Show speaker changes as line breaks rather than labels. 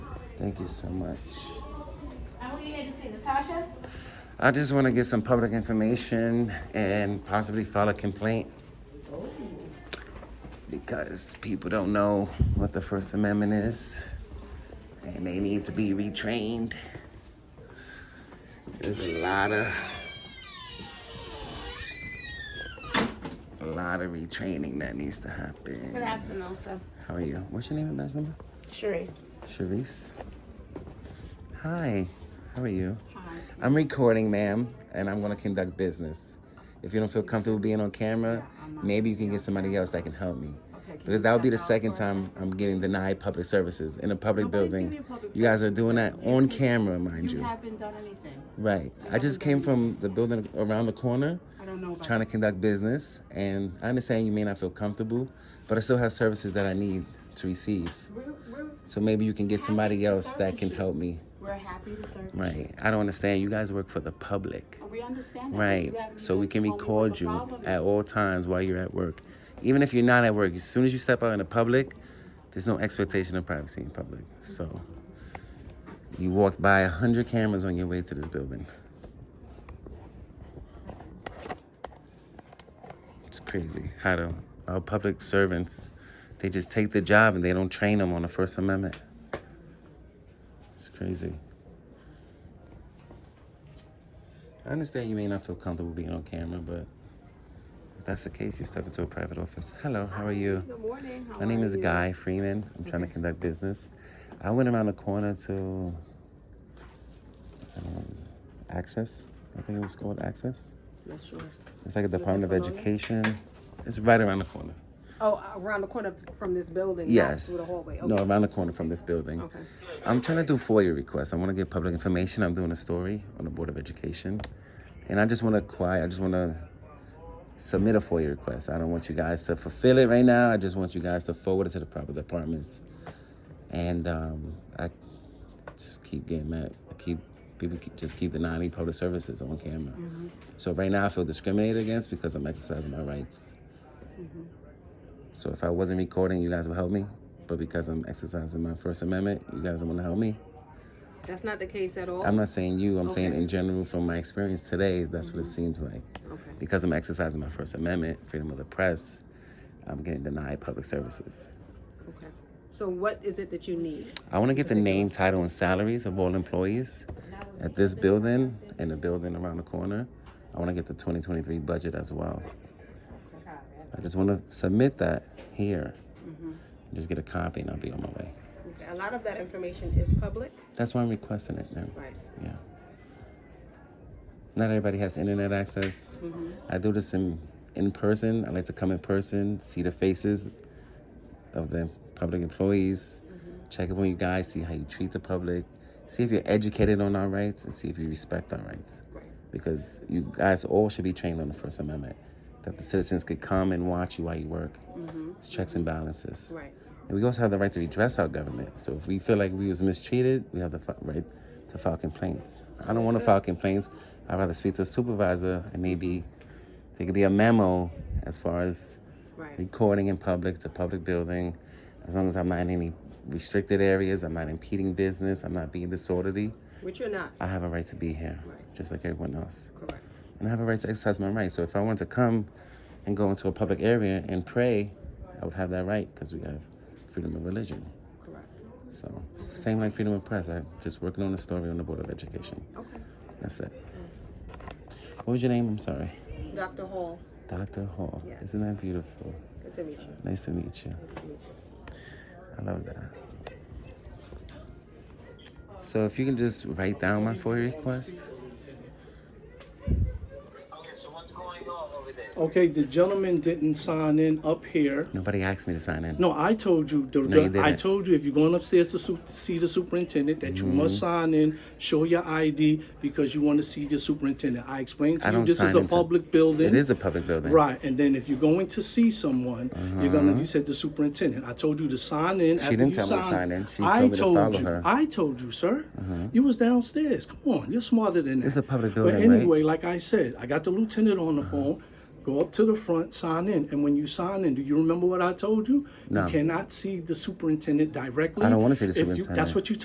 Thank you so much.
And who you here to see, Natasha?
I just want to get some public information and possibly file a complaint because people don't know what the First Amendment is and they need to be retrained. There's a lot of a lot of retraining that needs to
Good
happen.
afternoon, sir.
How are you? What's your name and last number?
Sharice.
Charisse. Hi. How are you?
Hi.
I'm recording, ma'am, and I'm gonna conduct business. If you don't feel comfortable being on camera, maybe you can get somebody else that can help me. Because that would be the second time I'm getting denied public services in a public
Nobody's
building.
giving you public
You guys are doing that on camera, mind
You
you.
haven't done anything.
Right. I just came from the building around the corner
I don't know about
trying to conduct business, and I understand you may not feel comfortable, but I still have services that I need to receive.
We're, we're,
So maybe you can get
Happy
somebody
to
else that
service
can
you.
help me.
we're happy to serve.
Right. I don't understand. You guys work for the public.
you. We understand that. but
Right.
you haven't
So we
even
can
told me what
record
the
you
problem
at
is.
all times while you're at work. Even if you're not at work, as soon as you step out in the public, there's no expectation of privacy in public. So you walked by a hundred cameras on your way to this building. It's crazy how the, our public servants, they just take the job and they don't train them on the First Amendment. It's crazy. I understand you may not feel comfortable being on camera, but if that's the case, you step into a private office. Hello, how are you?
Good morning. How
My name
are
is
you?
Guy Freeman. I'm trying to conduct business. I went around the corner to I don't know, Access. I think it was called Access.
Not sure.
It's like a Department of
Bologna?
Education. It's right around the corner.
Oh, around the corner from this building. not
Yes.
Through the hallway. Okay.
No, around the corner from this building.
Okay.
I'm trying to do FOIA requests. I want to get public information. I'm doing a story on the Board of Education. And I just want to quiet, I just want to submit a FOIA request. I don't want you guys to fulfill it right now. I just want you guys to forward it to the proper departments. And um, I just keep getting mad. I keep people keep, just keep denying me public services on camera. So right now I feel discriminated against because I'm exercising my rights. So if I wasn't recording, you guys would help me. But because I'm exercising my First Amendment, you guys don't want to help me.
That's not the case at all.
I'm not saying you. I'm saying
Okay.
in general, from my experience today, that's what it seems like.
Okay.
Because I'm exercising my First Amendment, freedom of the press, I'm getting denied public services.
Okay. So what is it that you need?
I want to get the name, title, and salaries of all employees at this building and the building around the corner. I want to get the 2023 budget as well. I just want to submit that here. Just get a copy and I'll be on my way.
Okay. A lot of that information is public.
That's why I'm requesting it now.
Right.
Yeah. Not everybody has internet access. I do this in in person. I like to come in person, see the faces of the public employees, check up on you guys, see how you treat the public, see if you're educated on our rights, and see if you respect our rights.
Right.
Because you guys all should be trained on the First Amendment, that the citizens could come and watch you while you work. It's checks and balances.
Right.
And we also have the right to redress our government. So if we feel like we was mistreated, we have the fi- right to file complaints. I don't want to file complaints. I'd rather speak to a supervisor and maybe there could be a memo as far as
Right.
recording in public to public building. As long as I'm not in any restricted areas, I'm not impeding business, I'm not being disorderly,
Which you're not.
I have a right to be here,
Right.
just like everyone else
Correct.
and I have a right to exercise my right. So if I wanted to come and go into a public area and pray, I would have that right because we have freedom of religion.
Correct.
So it's the same like freedom of press. I'm just working on a story on the Board of Education.
Okay.
That's it. What was your name? I'm sorry.
Dr. Hall.
Dr. Hall.
Yes.
Isn't that beautiful?
Good to meet you.
Nice to meet you.
Nice to meet you.
I love that. So if you can just write down my FOIA request.
Okay, the gentleman didn't sign in up here.
Nobody asked me to sign in.
No, I told you. The,
No, you
the- I
didn't.
told you if you're going upstairs to su- see the superintendent that you must
Mm-hmm.
sign in, show your ID because you want to see the superintendent. I explained to
I
you
don't
this is
sign
a
into-
public building.
It is a public building.
Right, and then if you're going to see someone, you're gonna. You said the superintendent. I told you to sign in. after
Uh-huh. didn't
you
tell me to
sign,
sign in. She
I
told me to follow
you.
her. Uh-huh.
I told you, sir. You was downstairs. Come on, you're smarter than that.
It's a public
But
building, right?
anyway, like I said, I got the lieutenant on the phone. Go up to the front, sign in, and when you sign in, do you remember what I told you?
No.
You cannot see the superintendent directly.
I don't wanna see the
If you-
superintendent.
that's what you